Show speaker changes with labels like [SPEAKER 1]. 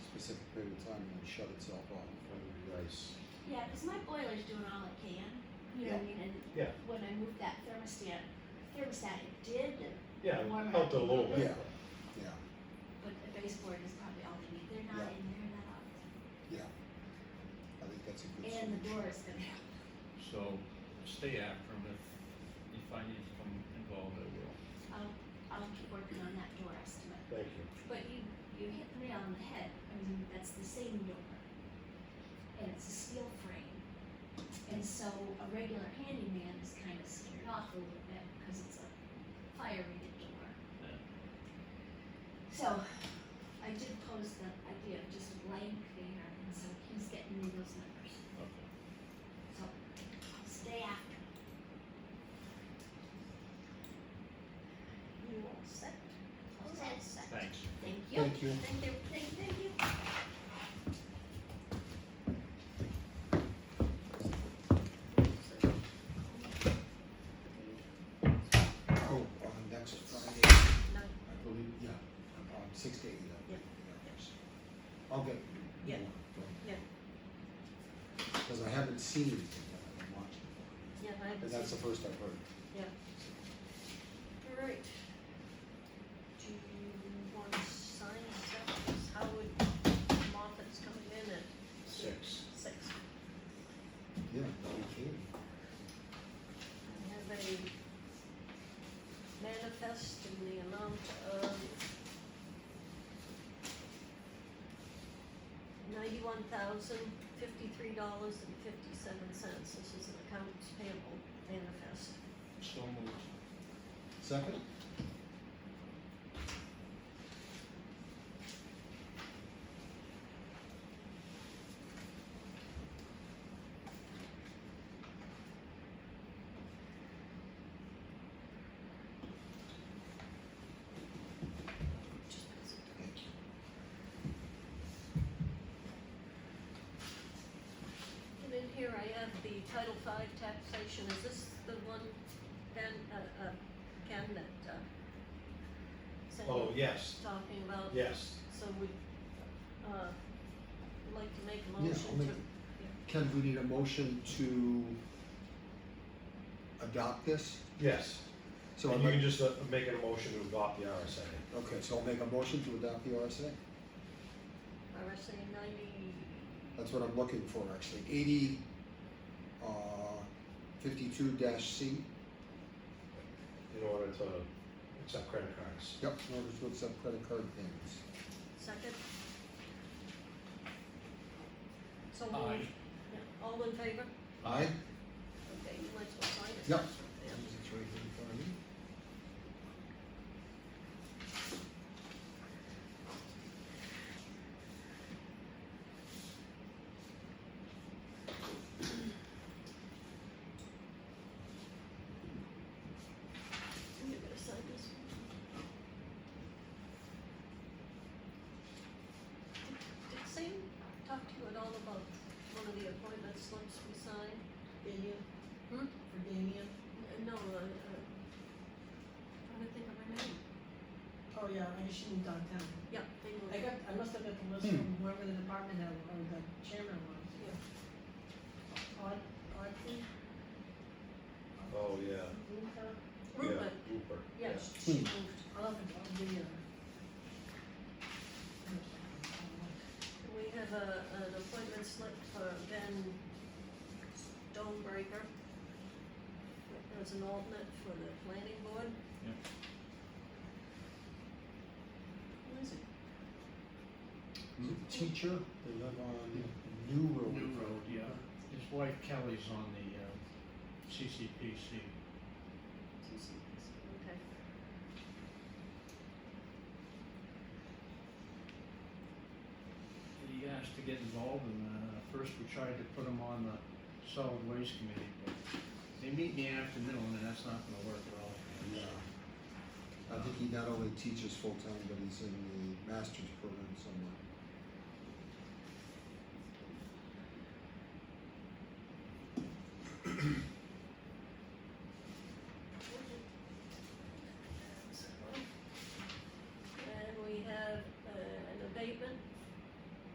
[SPEAKER 1] specific period of time and then shut itself off.
[SPEAKER 2] Nice.
[SPEAKER 3] Yeah, because my boiler's doing all it can, you know what I mean, and
[SPEAKER 2] Yeah.
[SPEAKER 3] when I moved that thermostat, thermostat, it did,
[SPEAKER 2] Yeah, it helped a little bit.
[SPEAKER 1] Yeah. Yeah,
[SPEAKER 3] but the baseboard is probably all they need, they're not
[SPEAKER 1] Yeah.
[SPEAKER 3] in there that often.
[SPEAKER 1] I think that's a good
[SPEAKER 3] And the
[SPEAKER 1] solution.
[SPEAKER 3] door is gonna help,
[SPEAKER 4] So stay after them if, if I need to come involved, I will.
[SPEAKER 3] I'll, I'll keep working on that door estimate,
[SPEAKER 2] Thank you.
[SPEAKER 3] but you, you hit the nail on the head, I mean, that's the same door. And it's a steel frame, and so a regular handyman is kind of scared off a little bit, because it's a fire rated door.
[SPEAKER 4] Yeah.
[SPEAKER 3] So, I did pose the idea of just blank there, and so he's getting me those numbers,
[SPEAKER 4] Okay.
[SPEAKER 3] so I'll stay after. him. You all set? All set.
[SPEAKER 4] Thanks.
[SPEAKER 3] Thank you.
[SPEAKER 1] Thank you.
[SPEAKER 3] Thank you, thank you, thank you.
[SPEAKER 1] Oh, on next Friday,
[SPEAKER 5] No.
[SPEAKER 1] I believe, yeah, um, six to eight, I believe, yeah. Okay.
[SPEAKER 5] Yeah. Yeah.
[SPEAKER 1] Cause I haven't seen anything that I've been watching,
[SPEAKER 5] Yeah, I have.
[SPEAKER 1] and
[SPEAKER 5] the
[SPEAKER 1] that's the
[SPEAKER 5] same.
[SPEAKER 1] first I've heard.
[SPEAKER 5] All right. Do you want to sign stuff? 'Cause Howard Moffett's coming in at
[SPEAKER 2] Six.
[SPEAKER 5] six.
[SPEAKER 1] Yeah, we can.
[SPEAKER 5] I have a manifest in the amount of ninety-one thousand, fifty-three dollars and fifty-seven cents. This is an accounts payable manifest.
[SPEAKER 4] So moved.
[SPEAKER 1] Second? Thank you.
[SPEAKER 5] And in here I have the Title V taxation, is this the one, Ben, uh, uh, Ken, that, uh, Sandy
[SPEAKER 2] Oh,
[SPEAKER 5] was
[SPEAKER 2] yes,
[SPEAKER 5] talking about?
[SPEAKER 2] yes.
[SPEAKER 5] So we, uh, would like to make a
[SPEAKER 1] Yeah,
[SPEAKER 5] motion
[SPEAKER 1] I'll make,
[SPEAKER 5] to,
[SPEAKER 1] Ken, we need a motion to adopt this,
[SPEAKER 2] Yes.
[SPEAKER 1] so
[SPEAKER 2] So
[SPEAKER 1] I'll
[SPEAKER 2] you
[SPEAKER 1] make,
[SPEAKER 2] can just uh, make a motion to adopt the RSA.
[SPEAKER 1] okay, so I'll make a motion to adopt the RSA?
[SPEAKER 5] RSA ninety,
[SPEAKER 1] That's what I'm looking for, actually, eighty, uh, fifty-two dash C,
[SPEAKER 2] in order to accept credit cards.
[SPEAKER 1] yep, in order to accept credit card payments.
[SPEAKER 5] second? So
[SPEAKER 4] Aye.
[SPEAKER 5] moved. Yeah, all in favor?
[SPEAKER 1] Aye?
[SPEAKER 5] Okay, you might as well sign it.
[SPEAKER 1] Yep.
[SPEAKER 5] Yeah.
[SPEAKER 1] It's right here in front of me.
[SPEAKER 5] You're gonna sign this one? Did Sam talk to you at all about one of the appointment slips we signed?
[SPEAKER 6] Damien?
[SPEAKER 5] Hmm?
[SPEAKER 6] For Damien?
[SPEAKER 5] N- No, uh, uh, trying to think of her name.
[SPEAKER 6] Oh, yeah, I assumed downtown.
[SPEAKER 5] Yeah, they were.
[SPEAKER 6] I got, I must have got the list from whoever the department head or the chairman was. Aud, Audrey?
[SPEAKER 2] Oh, yeah.
[SPEAKER 6] Luca?
[SPEAKER 2] Yeah,
[SPEAKER 5] Rupert,
[SPEAKER 2] Rupert,
[SPEAKER 5] yeah, she moved.
[SPEAKER 6] I'll have to, I'll give you.
[SPEAKER 5] We have a, an appointment slip for Ben Stonebreaker as an alternate for the planning board.
[SPEAKER 4] Yep.
[SPEAKER 5] Who is it?
[SPEAKER 1] Is it Teacher, they live on New Road.
[SPEAKER 4] New Road, yeah. His wife Kelly's on the, uh, CCPC.
[SPEAKER 5] Okay.
[SPEAKER 4] He asked to get involved and, uh, first we tried to put him on the solid waste committee, but they meet in the afternoon and that's not gonna work at all.
[SPEAKER 1] Yeah. I think he not only teaches full-time, but he's in the master's program somewhere.
[SPEAKER 5] uh,